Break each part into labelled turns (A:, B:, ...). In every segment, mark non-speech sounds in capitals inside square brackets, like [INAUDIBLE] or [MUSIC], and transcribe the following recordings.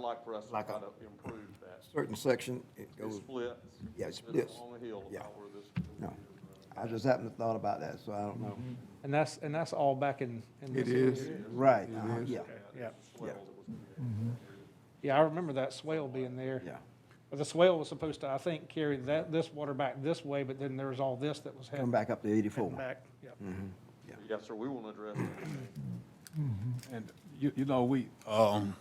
A: like for us to
B: Like
A: try
B: a-
A: to improve that.
B: certain section, it
A: It
B: goes,
A: splits.
B: Yeah, it
A: It's
B: splits.
A: On the hill
B: Yeah.
A: about where this.
B: no. I just happened to thought about that, so I don't know.
C: And that's, and that's all back in. in
D: It
C: this
D: is.
C: area.
B: Right,
D: It
B: uh-huh,
D: is.
B: yeah,
C: Yeah,
A: Swell that was created.
C: yeah, I remember that swale being there.
B: yeah.
C: But The swale was supposed to, I think, carry that, this water back this way, but then there was all this that was
B: Come
C: heading
B: back up to eighty-four. Mm-hmm.
C: back. Yeah.
B: Yeah.
A: Yes, sir, we want to address that.
D: And you, you know, we, um,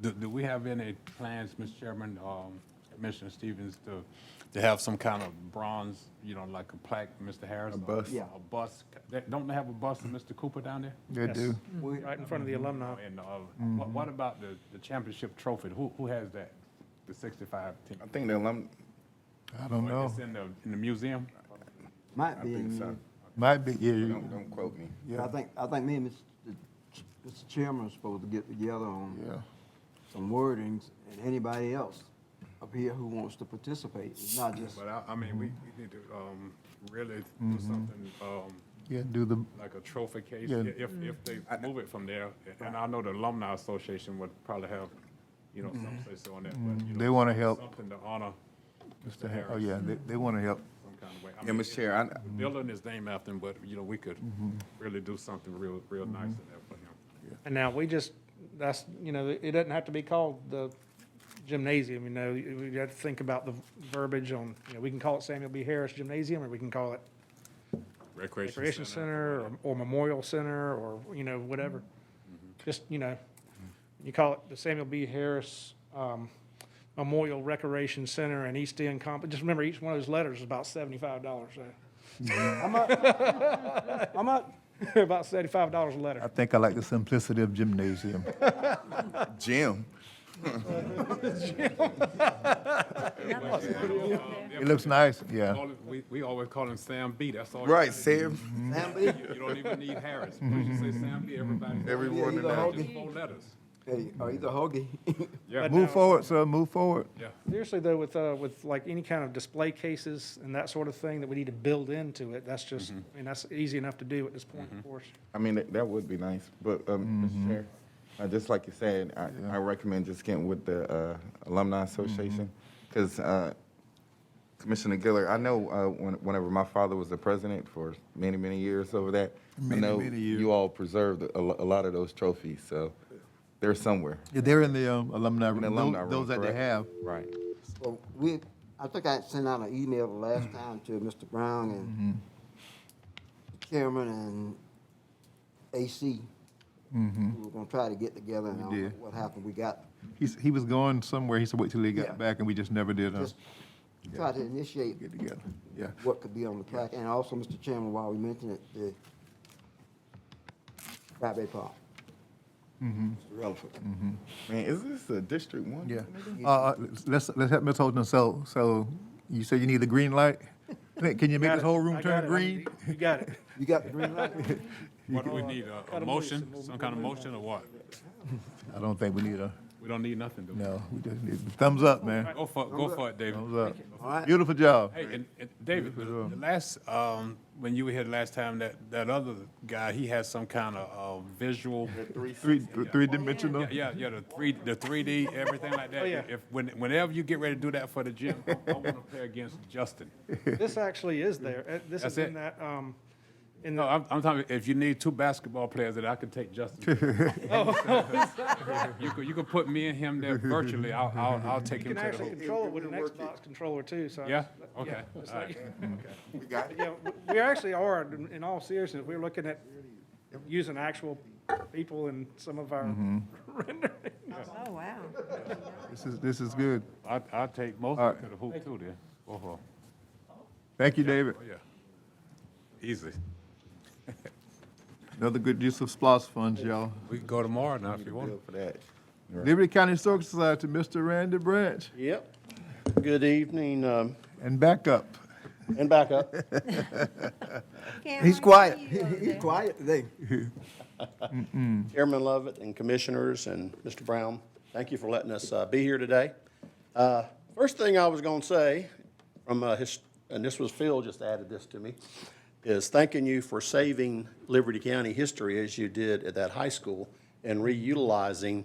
D: do, do we have any plans, Mr. Chairman, um, Commissioner Stevens, to, to have some kind of bronze, you know, like a plaque, Mr. Harris? A bus?
B: Yeah.
D: A bus, They- don't they have a bus of Mr. Cooper down there?
E: They
C: Yes.
E: do.
B: We-
C: Right in front of the alumni.
D: And, uh, what, what about the, the championship trophy? Who, who has that? The sixty-five team?
F: I think um, the alum,
E: I don't know.
D: It's in the, in the museum?
B: Might
F: I
B: be,
F: think
B: in-
F: so.
E: Might be, yeah,
F: Don't,
E: you-
F: don't quote me.
B: I think, I think me and Mr. Ch- Mr. Chairman are supposed to get together on
E: yeah.
B: some wordings, and anybody else up here who wants to participate, it's not just,
D: But I, I mean, we, we need to, um, really do something, um,
E: Yeah, do the,
D: like a trophy case,
E: Yeah.
D: i- if, if
C: Mm.
D: they move it from there. And I know the alumni association would probably have, you know, some say so on that, but, you know.
E: Mm-hmm. They wanna help.
D: Something to honor Mr. Harris.
E: oh, yeah, they, they want to help.
D: Some kind of way. I
F: Yeah,
D: mean,
F: Mr. Chair, I,
D: the Building his name after him, but, you know, we could
E: Mm-hmm.
D: really do something real, real nice in there for him.
C: And now we just, that's, you know, it doesn't have to be called the gymnasium, you know, we got to think about the verbiage on, you know, we can call it Samuel B. Harris Gymnasium, or we can call it Recreation Center, or- or Memorial Center, or, you know, whatever. Just, you know, you call it the Samuel B. Harris um, Memorial Recreation Center and East End Comp, just remember, each one of those letters is about seventy-five dollars, so,
B: how much? How much?
C: [LAUGHS] about seventy-five dollars a
E: I
C: letter.
E: think I like the simplicity of gymnasium.
F: Jim,
E: It looks nice, yeah.
D: Call it- We, we always call him Sam B, that's all. you
F: right,
D: gotta
F: Sam,
B: Sam B?
D: do. You don't even need Harris,
E: Mm-hmm.
D: once you say Sam B, everybody.
F: Everyone
B: in there.
D: Just four letters,
B: Hey, or either Hoagie. [LAUGHS]
D: yeah,
E: Move forward, sir, move forward.
D: yeah.
C: Seriously though, with, uh, with like any kind of display cases and that sort of thing that we need to build into it, that's just, I mean, that's easy enough to do at this point, of course.
F: I mean, that, that would be nice, but, um,
E: Mm-hmm.
F: Mr. Chair, uh, just like you said, I, I recommend just getting with the, uh, Alumni Association.
E: Mm-hmm.
F: Cause, uh, Commissioner Giller, I know, uh, when, whenever my father was the president for many, many years over that, I
E: Many,
F: know
E: many years.
F: you all preserved a, lo- a lot of those trophies, so they're somewhere.
E: Yeah, They're in the um, alumni,
F: in the alumni
E: room,
F: room,
E: those that they
F: correct?
E: have.
F: Right.
B: Well, we, I think I sent out an email the last time to Mr. Brown and the chairman and AC. We were gonna try to get together and I don't know
E: did.
B: what happened. Mm-hmm. We got,
E: He's, he was going somewhere, he said wait till he
B: Yeah.
E: got back, and we just never did, uh,
B: just try to initiate
E: get together, yeah.
B: what could be on the plaque. And also, Mr. Chairman, while we mention it, the Rabbit Park. Mr. Relaford.
F: Man, is this a District One?
E: Yeah. Uh, uh, let's, let's help Ms. Holden, so, so you say you need the green light? Can can you make
C: Got
E: this
C: it.
E: whole
C: I
E: room
C: got
E: turn
C: it.
E: green?
C: You got it.
B: You got the green light?
D: What do we need, a- a
C: gotta move
D: motion,
C: some- we'll-
D: some kind of
C: we'll move
D: motion or what?
E: I don't think we need a,
D: We don't need nothing, do we?
E: no, we just need, thumbs up, man,
D: Go for, it, go for it, David.
E: thumbs up.
B: All right.
E: Beautiful job.
D: Hey, and, and David, the the last, um, when you were here last time, that, that other guy, he had some kind of, uh, visual.
E: Three, three dimensional.
D: Yeah, yeah, yeah, the three, the three D, everything like that.
C: Oh, yeah.
D: If, when, whenever you get ready to do that for the gym, I, I wanna play against Justin.
C: This actually is there. Uh, This is
D: That's
C: in
D: it. Oh,
C: that, um, in
D: No,
C: the,
D: I'm, I'm talking, if you need two basketball players, that I could take Justin.
C: [LAUGHS] Oh.
D: You could, you could put me and him there virtually, I'll, I'll, I'll take
C: you
D: him
C: can
D: to the
C: actually
D: hoop.
C: control it with an Xbox controller too, so. I-
D: Yeah,
C: yeah,
D: okay,
C: it's
D: all right.
C: like-
F: We got it.
C: Yeah, w- we actually are, in- in all seriousness, we're looking at using actual people in some of
D: Mm-hmm.
C: our
G: Oh, wow.
E: This is, this is good.
D: I, I'll take most
E: All right.
D: to the hoop too then. Both of 'em.
E: Thank you, David.
D: Oh, yeah. Easy.
E: Another good use of SPOS funds, y'all.
D: We can go tomorrow now if you want.
F: Good for that.
E: Liberty County Historical Society, Mr. Randy Branch,
H: Yep. Good evening, um,
E: and back up.
H: and back up.
B: He's quiet. He's quiet today.
H: Chairman Lovett and Commissioners and Mr. Brown, thank you for letting us uh, be here today. Uh, First thing I was going to say, from, uh, his- and this was Phil just added this to me, is thanking you for saving Liberty County history as you did at that high school and reutilizing